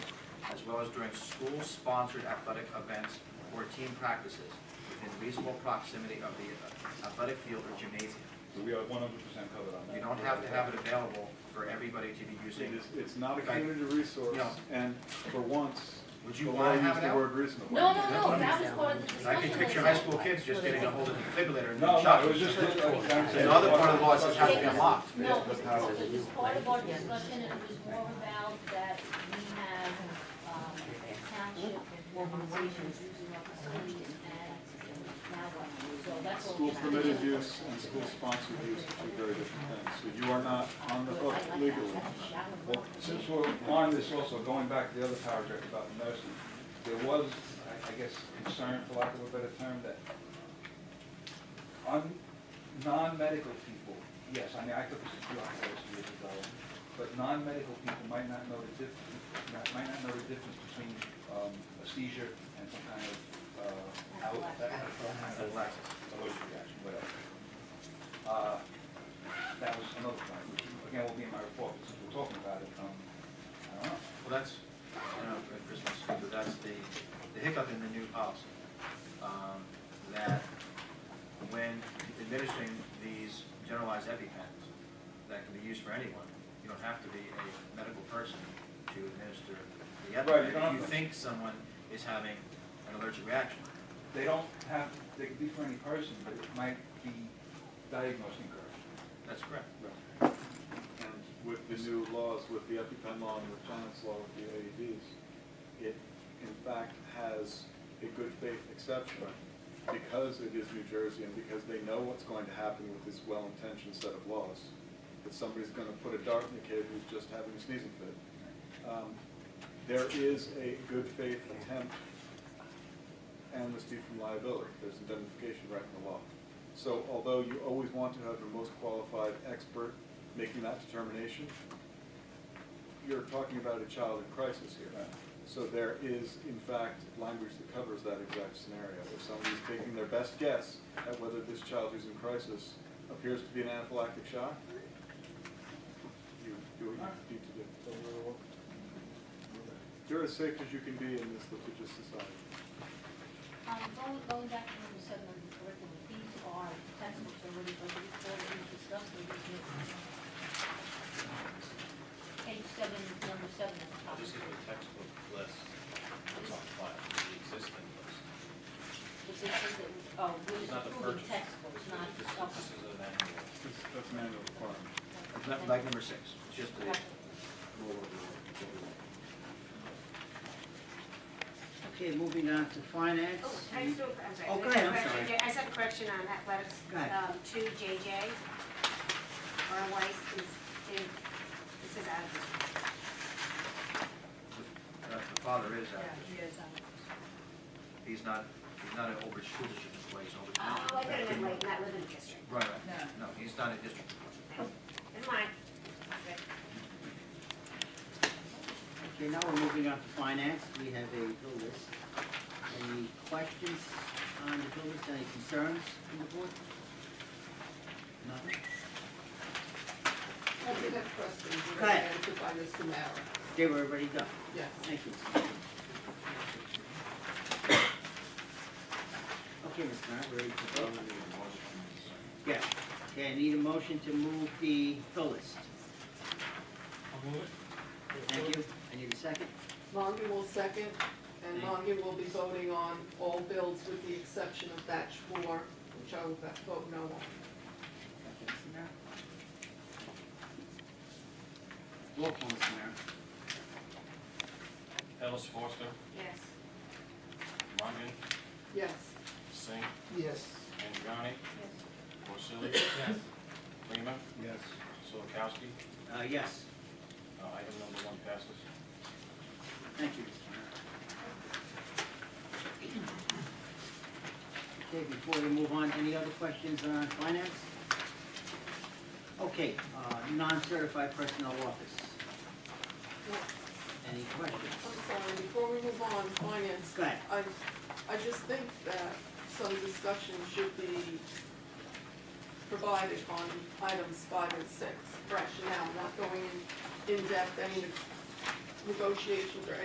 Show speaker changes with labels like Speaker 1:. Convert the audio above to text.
Speaker 1: as well as during school-sponsored athletic events or team practices within reasonable proximity of the athletic field or gymnasium.
Speaker 2: So we are one hundred percent covered on that.
Speaker 1: You don't have to have it available for everybody to be using.
Speaker 2: It's, it's not a community resource,
Speaker 1: No.
Speaker 2: and for once,
Speaker 1: Would you
Speaker 2: the law
Speaker 1: wanna have
Speaker 2: used
Speaker 1: it
Speaker 2: the
Speaker 1: out?
Speaker 2: word reasonable.
Speaker 3: No, no, no, that was part
Speaker 1: I
Speaker 3: of the discussion.
Speaker 1: can picture high school kids just getting a hold of the defibrillator and
Speaker 2: No,
Speaker 1: being
Speaker 2: no, it
Speaker 1: shocked.
Speaker 2: was just.
Speaker 1: The other part of the law says it has to be unlocked.
Speaker 3: No, this this was part of our discussion, and it was more about that we have, um, township organizations using our facilities and now what? So that's all.
Speaker 2: School permitted use and school sponsored use are two very different things, so you are not on the hook legally. Well, since we're on this also, going back to the other paragraph about the nursing, there was, I- I guess, concern, for lack of a better term, that un, non-medical people, yes, I mean, I took this a few hours years ago, but non-medical people might not know the diff, not- might not know the difference between, um, a seizure and some kind of, uh, out,
Speaker 1: Relax.
Speaker 2: allergic reaction, whatever. Uh, That was another point, which again will be in my report, but since we're talking about it, um, I don't know.
Speaker 1: Well, that's, I don't know if Chris wants to speak, but that's the, the hiccup in the new policy. um, That when administering these generalized EpiPens that can be used for anyone, you don't have to be a medical person to administer the
Speaker 2: Right, you don't
Speaker 1: EpiPen. If
Speaker 2: have
Speaker 1: you
Speaker 2: to.
Speaker 1: think someone is having an allergic reaction,
Speaker 2: They don't have, they could be for any person, but it might be diagnosed incorrectly.
Speaker 1: that's correct.
Speaker 4: And with the new laws, with the EpiPen law and the Planet's law with the AEDs, it in fact has a good faith exception because it is New Jersey and because they know what's going to happen with this well-intentioned set of laws. That somebody's gonna put a dart in a kid who's just having a sneezing fit. Um, There is a good faith attempt amnesty from liability, there's indemnification right in the law. So although you always want to have the most qualified expert making that determination, you're talking about a child in crisis here.
Speaker 2: Right.
Speaker 4: So there is, in fact, language that covers that exact scenario. If somebody's taking their best guess at whether this child who's in crisis appears to be an anaphylactic shock, you do what you need to do. You're as safe as you can be in this litigious society.
Speaker 3: Um, going, going back to what you said on the curriculum, these are textbooks already, but we already discussed them, these new- Page seven, number seven at the top.
Speaker 5: I'll just give you a textbook list that's on file, the existing list.
Speaker 3: Which is, is- oh, we're
Speaker 5: It's not the
Speaker 3: approving
Speaker 5: purchase.
Speaker 3: textbooks, not,
Speaker 5: This
Speaker 3: oh,
Speaker 5: this is an annual.
Speaker 4: That's, that's manual requirement.
Speaker 1: Like- Like number six, it's just a
Speaker 3: okay.
Speaker 1: rule of law.
Speaker 6: Okay, moving on to finance.
Speaker 7: Oh, I still, I'm sorry.
Speaker 6: Oh, go ahead, I'm
Speaker 7: Question.
Speaker 6: sorry.
Speaker 7: Yeah, I just have a question on athletics,
Speaker 6: Go ahead.
Speaker 7: um, two JJ. Or Weiss is, is, this is out of.
Speaker 1: Uh, The father is active. He's not, he's not an Old School District employee, he's an Old Town.
Speaker 7: Oh, I could have been like, not living in the district.
Speaker 1: Right, right. No, he's not a district.
Speaker 7: Never mind. Okay.
Speaker 6: Okay, now we're moving on to finance. We have a bill list. Any questions on the bill list, any concerns from the board? Nothing?
Speaker 8: I did have questions.
Speaker 6: Go ahead.
Speaker 8: Answered by Mr. Mara.
Speaker 6: They were already done.
Speaker 8: Yes.
Speaker 6: Thank you. Okay, Mr. Mayor, we're ready to vote. Yeah, okay, I need a motion to move the bill list. I'll move it. Thank you. I need a second.
Speaker 8: Mongan will second, and
Speaker 6: Thank you.
Speaker 8: Mongan will be voting on all bills with the exception of batch four, which I will vote no on.
Speaker 6: Thank you, Mr. Mayor. Roll call, Mr. Mayor.
Speaker 5: Ellis Foster,
Speaker 7: Yes.
Speaker 5: Mongan,
Speaker 8: Yes.
Speaker 5: Singh,
Speaker 6: Yes.
Speaker 5: Andriani,
Speaker 7: Yes.
Speaker 5: Porcelli. Yes. Lima,
Speaker 2: Yes.
Speaker 5: Solakowski.
Speaker 6: Uh, yes,
Speaker 5: Uh, Item number one passes.
Speaker 6: thank you, Mr. Mayor. Okay, before we move on, any other questions on finance? Okay, uh, non-certified personnel office,
Speaker 8: No,
Speaker 6: any questions?
Speaker 8: I'm sorry, before we move on, finance.
Speaker 6: Go ahead.
Speaker 8: I, I just think that some discussion should be provided on items five and six, rationale, not going in, in depth, any negotiations or